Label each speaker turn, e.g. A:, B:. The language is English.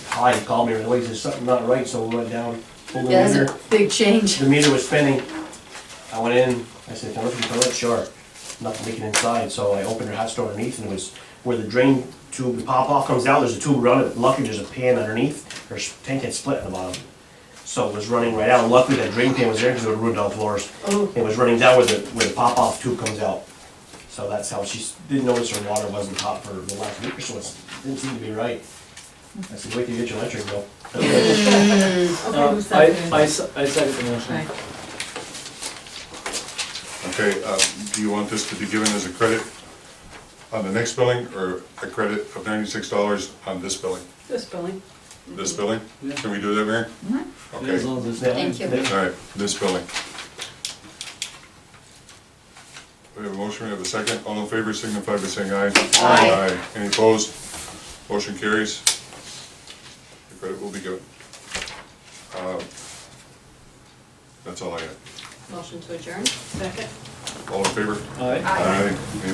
A: high, he called me right away, he says, something not right, so we went down, pulled the
B: Yeah,
A: meter.
B: that's a big change.
A: The meter was spinning. I went in, I said, can I look at the toilet? Sure. Nothing leaking inside, so I opened her hot store underneath and it was where the drain tube, the pop-off comes out, there's a tube running, luckily there's a pan underneath, her s- tank had split at the bottom. So it was running right out, luckily that drain pan was there because it would ruin all the floors.
B: Oh.
A: It was running down where the, where the pop-off tube comes out. So that's how, she s- didn't notice her water wasn't hot for the last week or so, it didn't seem to be right. I said, wait till you get your electric bill.
B: Okay,
C: Uh,
B: who's
C: I,
B: second?
C: I, se- I second the motion.
B: Right.
D: Okay, uh, do you want this to be given as a credit on the next billing, or a credit of ninety-six dollars on this billing?
E: This billing.
D: This billing?
C: Yeah.
D: Can we do that, Mary?
C: Yeah, As
D: Okay,
C: long as it's
A: That-
C: done.
B: Thank you.
A: that-
D: all right, this billing. We have a motion, we have a second. All in favor signify by saying aye.
B: Aye.
D: Any opposed? Motion carries. The credit will be given. Uh, That's all I have.
E: Motion to adjourn. Second.
D: All in favor?
C: All right.
D: Aye. Any